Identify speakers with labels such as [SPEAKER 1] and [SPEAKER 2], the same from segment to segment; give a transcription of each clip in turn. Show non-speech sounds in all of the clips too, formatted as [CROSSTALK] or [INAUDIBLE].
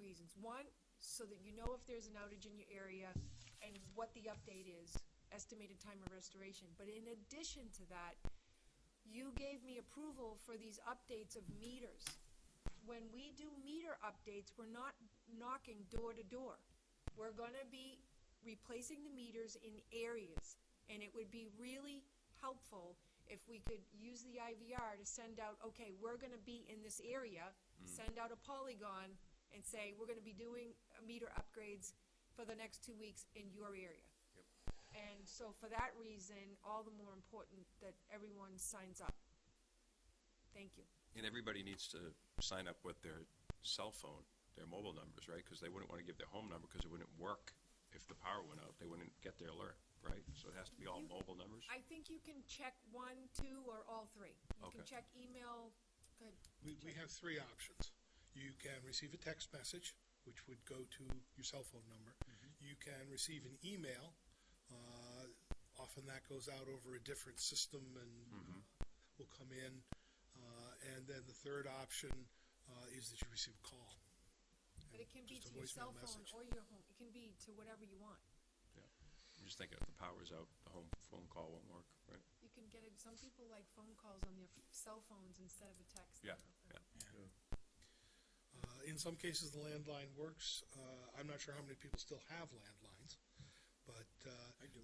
[SPEAKER 1] reasons. One, so that you know if there's an outage in your area and what the update is, estimated time of restoration. But in addition to that, you gave me approval for these updates of meters. When we do meter updates, we're not knocking door to door. We're gonna be replacing the meters in areas. And it would be really helpful if we could use the IVR to send out, okay, we're gonna be in this area, send out a polygon and say, we're gonna be doing uh, meter upgrades for the next two weeks in your area. And so for that reason, all the more important that everyone signs up. Thank you.
[SPEAKER 2] And everybody needs to sign up with their cell phone, their mobile numbers, right? Because they wouldn't want to give their home number because it wouldn't work if the power went out. They wouldn't get their alert, right? So it has to be all mobile numbers?
[SPEAKER 1] I think you can check one, two, or all three. You can
[SPEAKER 2] Okay.
[SPEAKER 1] check email, good,
[SPEAKER 3] We, we have three options. You can receive a text message, which would go to your cell phone number.
[SPEAKER 2] Mm-hmm.
[SPEAKER 3] You can receive an email. Uh, often that goes out over a different system and
[SPEAKER 2] Mm-hmm.
[SPEAKER 3] uh, will come in. Uh, and then the third option uh, is that you receive a call.
[SPEAKER 1] but it can be
[SPEAKER 3] Just a
[SPEAKER 1] to your cell
[SPEAKER 3] voicemail
[SPEAKER 1] phone
[SPEAKER 3] message.
[SPEAKER 1] or your home, it can be to whatever you want.
[SPEAKER 2] Yeah. I'm just thinking if the power's out, the home phone call won't work, right?
[SPEAKER 1] You can get, it- some people like phone calls on their f- cell phones instead of a text.
[SPEAKER 2] Yeah,
[SPEAKER 1] now.
[SPEAKER 2] yeah.
[SPEAKER 3] Uh, in some cases, the landline works. Uh, I'm not sure how many people still have landlines, but uh, I do.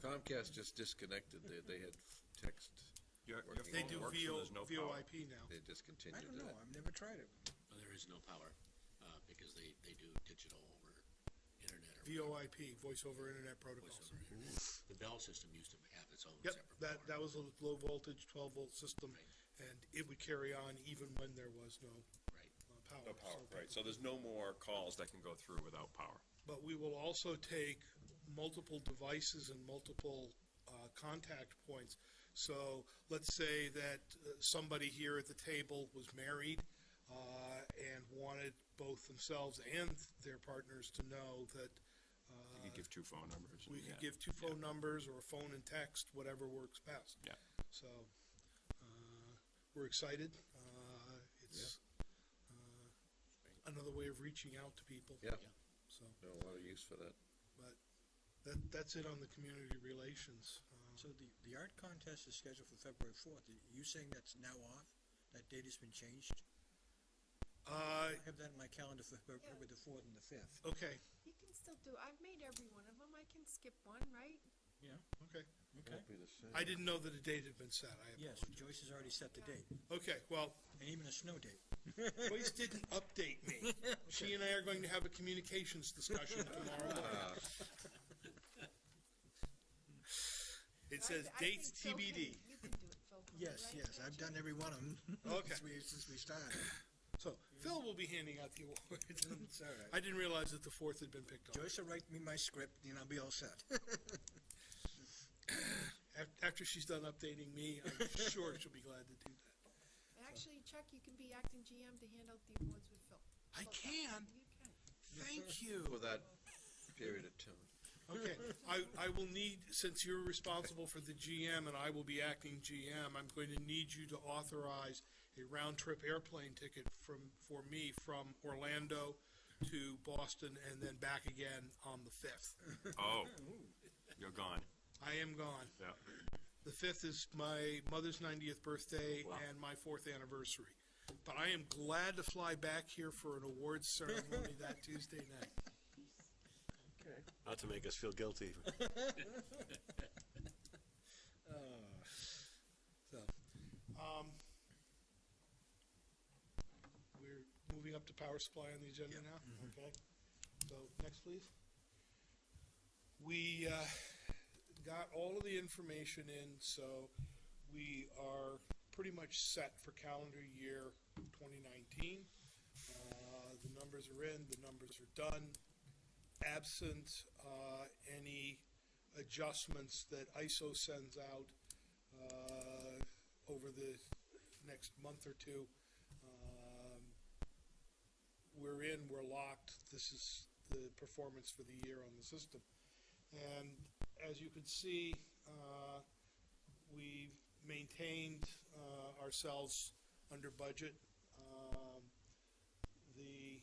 [SPEAKER 4] Comcast just disconnected, they, they had text,
[SPEAKER 2] Your, your
[SPEAKER 4] They
[SPEAKER 3] They
[SPEAKER 2] phone
[SPEAKER 3] do
[SPEAKER 2] works when
[SPEAKER 3] VO,
[SPEAKER 2] there's no power.
[SPEAKER 3] VoIP now.
[SPEAKER 4] they
[SPEAKER 5] I
[SPEAKER 4] discontinued
[SPEAKER 5] don't know,
[SPEAKER 4] that.
[SPEAKER 5] I've never tried it.
[SPEAKER 6] Well, there is no power, uh, because they, they do digital over internet or
[SPEAKER 3] VoIP, Voice over Internet Protocols.
[SPEAKER 6] voice over internet. The Bell system used to have its own
[SPEAKER 3] Yep,
[SPEAKER 6] separate
[SPEAKER 3] that, that
[SPEAKER 6] power.
[SPEAKER 3] was a low voltage, twelve volt system, and it would carry on even when there was no
[SPEAKER 6] Right.
[SPEAKER 3] uh, power.
[SPEAKER 2] No power,
[SPEAKER 3] So-
[SPEAKER 2] right. So there's no more calls that can go through without power.
[SPEAKER 3] But we will also take multiple devices and multiple uh, contact points. So let's say that uh, somebody here at the table was married uh, and wanted both themselves and their partners to know that uh,
[SPEAKER 2] You could give two phone numbers.
[SPEAKER 3] we
[SPEAKER 2] yeah.
[SPEAKER 3] could give two phone numbers or a phone and text, whatever works best.
[SPEAKER 2] Yeah.
[SPEAKER 3] So, uh, we're excited. Uh, it's, uh, another way of reaching out to people.
[SPEAKER 4] Yeah,
[SPEAKER 3] So,
[SPEAKER 4] no, a lot of use for that.
[SPEAKER 3] but that, that's it on the community relations. Uh,
[SPEAKER 5] So the, the art contest is scheduled for February fourth. You saying that's now off? That date has been changed?
[SPEAKER 3] Uh,
[SPEAKER 5] I have that in my calendar for February the fourth and the fifth.
[SPEAKER 3] okay,
[SPEAKER 1] You can still do, I've made every one of them, I can skip one, right?
[SPEAKER 5] Yeah,
[SPEAKER 3] okay.
[SPEAKER 5] okay.
[SPEAKER 4] Won't be the same.
[SPEAKER 3] I didn't know that a date had been set. I,
[SPEAKER 5] Yes, Joyce has already set the date,
[SPEAKER 3] okay, well,
[SPEAKER 5] and even a snow date. [LAUGHS]
[SPEAKER 3] Joyce didn't update [LAUGHS] me. She and I are going to have a communications discussion [LAUGHS] tomorrow morning. Ah. It
[SPEAKER 1] I-
[SPEAKER 3] says
[SPEAKER 1] I think
[SPEAKER 3] dates
[SPEAKER 1] Phil can-
[SPEAKER 3] TBD.
[SPEAKER 1] You can do it, Phil. can you,
[SPEAKER 5] [LAUGHS] Yes,
[SPEAKER 1] right?
[SPEAKER 5] yes, I've done every one of them.
[SPEAKER 3] Okay.
[SPEAKER 5] [LAUGHS] Since we, since we started.
[SPEAKER 3] So Phil will be handing out the awards. [LAUGHS]
[SPEAKER 5] It's all right.
[SPEAKER 3] I didn't realize that the fourth had been picked up.
[SPEAKER 5] Joyce will write me my script, and I'll be all set.
[SPEAKER 3] Af- After she's done updating me, I'm sure she'll be glad to do that.
[SPEAKER 1] Actually, Chuck, you can be acting GM to hand out the awards with Phil.
[SPEAKER 3] I can,
[SPEAKER 1] You can.
[SPEAKER 3] thank you.
[SPEAKER 4] For that period of time.
[SPEAKER 3] Okay, I, I will need, since you're responsible for the GM and I will be acting GM, I'm going to need you to authorize a round-trip airplane ticket from, for me from Orlando to Boston and then back again on the fifth. [LAUGHS]
[SPEAKER 2] Oh, you're gone.
[SPEAKER 3] I am gone.
[SPEAKER 2] Yeah.
[SPEAKER 3] The fifth is my mother's ninetieth birthday and my fourth anniversary. But I am glad to fly back here for an awards ceremony that Tuesday night.
[SPEAKER 7] Not to make us feel guilty.
[SPEAKER 3] So, um, we're moving up to power supply on the agenda now, okay? So, next, please. We, uh, got all of the information in, so we are pretty much set for calendar year twenty nineteen. Uh, the numbers are in, the numbers are done. Absent, uh, any adjustments that ISO sends out, uh, over the next month or two. Um, We're in, we're locked, this is the performance for the year on the system. And as you can see, uh, we've maintained uh, ourselves under budget. Um, The